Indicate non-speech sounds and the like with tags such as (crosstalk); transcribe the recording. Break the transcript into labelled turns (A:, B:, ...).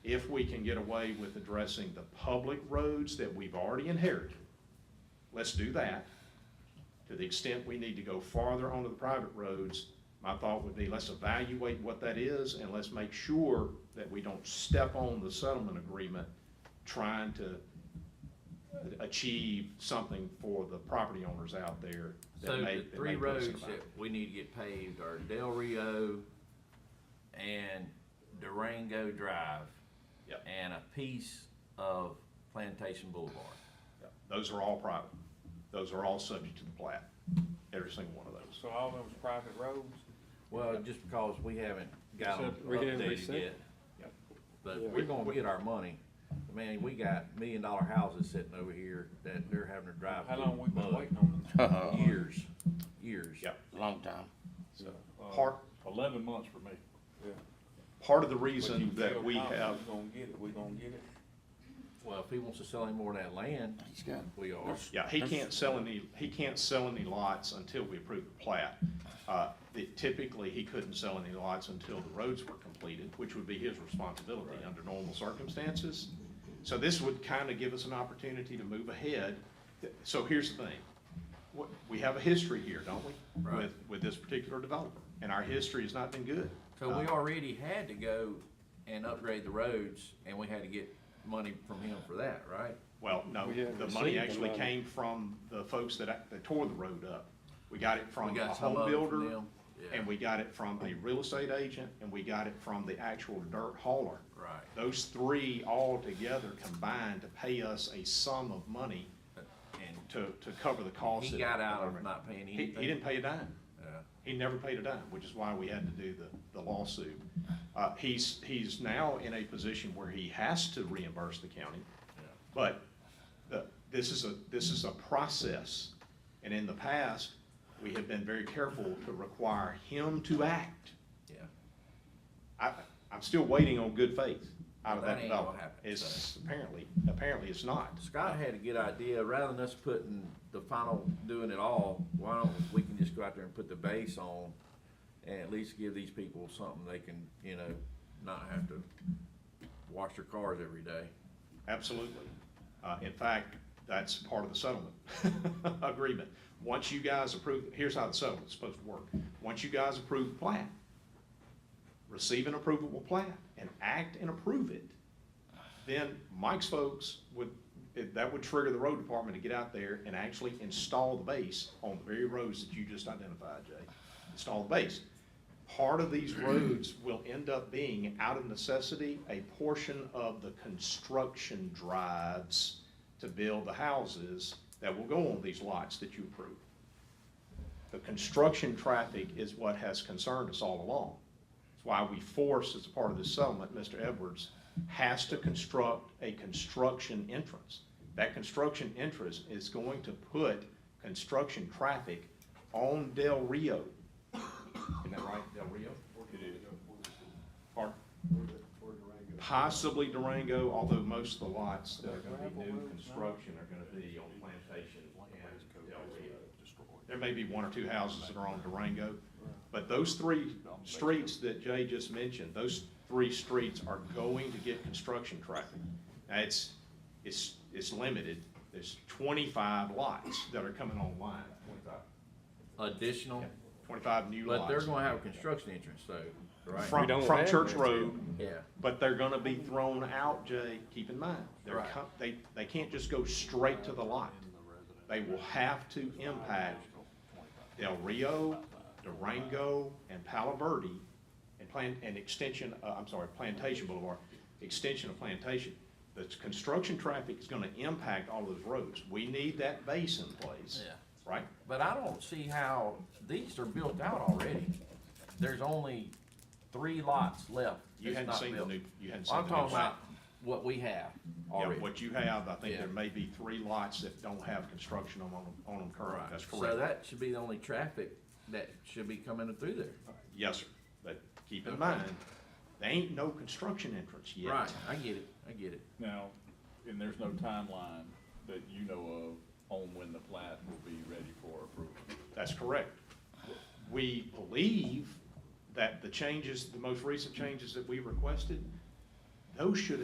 A: we can get away with addressing the public roads that we've already inherited, let's do that. To the extent we need to go farther onto the private roads, my thought would be, let's evaluate what that is, and let's make sure that we don't step on the settlement agreement trying to achieve something for the property owners out there
B: So
A: that may,
B: the
A: that
B: three
A: may put us in a
B: roads
A: bind.
B: that we need to get paved are Del Rio and Durango Drive.
A: Yep.
B: And a piece of Plantation Boulevard.
A: Those are all private. Those are all subject to the plat, every single one of those.
C: So all those private roads?
B: Well, just because we haven't got them
D: Except we haven't
B: updated
D: reset.
B: yet.
A: Yep.
B: But
D: Yeah.
B: we're gonna get our money. Man, we got million dollar houses sitting over here that they're having to drive
C: How
B: through
C: long we been
B: mud.
C: waiting on them?
B: Years, years.
A: Yep.
E: long time.
C: So, uh,
A: Part,
F: Eleven months for me.
A: part of the
C: but you
A: reason
C: feel
A: that we
C: confident
A: have,
C: We gonna get it, we gonna get it.
B: Well, if he wants to sell any more of that land,
E: He's got.
B: we are.
A: yeah, he can't sell any, he can't sell any lots until we approve the plat. Uh, that Typically, he couldn't sell any lots until the roads were completed, which would be his responsibility under normal circumstances. So this would kind of give us an opportunity to move ahead. So here's the thing. What- We have a history here, don't we?
B: Right.
A: With, with this particular developer, and our history has not been good. Uh,
B: So we
A: Uh-huh.
B: already had to go and upgrade the roads, and we had to get money from him for that, right?
A: Well, no,
D: We haven't
A: the money
D: received the
A: actually
D: money.
A: came from the folks that, act- that tore the road up. We got it
B: We
A: from a
B: got some
A: home
B: of it from
A: builder,
B: them, yeah.
A: and we got it from a real estate agent, and we got it from the actual dirt hauler.
B: Right.
A: Those three all together combined to pay us a sum of money
B: Uh, And
A: to, to cover the cost.
B: he
A: of-
B: got out of not paying
A: He,
B: anything.
A: he didn't pay a dime.
B: Yeah.
A: He never paid a dime, which is why we had to do the, the lawsuit. Uh, he's, he's now in a position where he has to reimburse the county. But the, this is a, this is a process. And in the past, we have been very careful to require him to act.
B: Yeah,
A: I, I'm still waiting on good faith out of
B: That
A: that
B: ain't gonna
A: development.
B: happen,
A: It's apparently, apparently it's not.
B: Scott had a good idea, rather than us putting the final, doing it all, why don't, we can just go out there and put the base on, and at least give these people something they can, you know, not have to wash their cars every day.
A: Absolutely. Uh, in fact, that's part of the settlement (laughs) agreement. Once you guys approve, here's how the settlement's supposed to work. Once you guys approve the plat, receive an approvable plat and act and approve it, then Mike's folks would, it- that would trigger the road department to get out there and actually install the base on the very roads that you just identified, Jay. Install the base. Part of these roads will end up being, out of necessity, a portion of the construction drives to build the houses that will go on these lots that you approve. The construction traffic is what has concerned us all along. It's why we force, as a part of this settlement, Mr. Edwards has to construct a construction entrance. That construction entrance is going to put construction traffic on Del Rio. Isn't that right, Del Rio? Or possibly Durango, although most of the lots that are gonna be new construction are gonna be on Plantation and Del Rio. There may be one or two houses that are on Durango, but those three streets that Jay just mentioned, those three streets are going to get construction traffic. Now, it's, it's, it's limited. There's twenty-five lots that are coming online, twenty-five,
B: Additional,
A: yeah, twenty-five new lots.
B: but they're gonna have a construction entrance though, right?
D: We
A: From,
D: don't
A: from
D: have
A: Church
D: that.
A: Road,
B: Yeah.
A: but they're gonna be thrown out, Jay, keep in mind. They're,
B: Right.
A: co- they, they can't just go straight to the lot. They will have to impact Del Rio, Durango, and Palo Verde, and plan, and extension, uh, I'm sorry, Plantation Boulevard, extension of Plantation. The construction traffic is gonna impact all those roads. We need that base in place.
B: Yeah.
A: Right?
B: But I don't see how, these are built out already. There's only three lots left.
A: You
B: that's
A: hadn't
B: not
A: seen the
B: built.
A: new, you hadn't seen the
B: I'm
A: new.
B: talking
A: plan.
B: about what we have
A: Yeah,
B: already.
A: what you have, I think
B: Yeah.
A: there may be three lots that don't have construction on them, on them currently, that's
B: So
A: correct.
B: that should be the only traffic that should be coming through there.
A: Yes, sir, but keep in
B: Okay.
A: mind, there ain't no construction entrance yet.
B: Right, I get it, I get it.
F: Now, and there's no timeline that you know of on when the plat will be ready for approval.
A: That's correct. We believe that the changes, the most recent changes that we requested, those should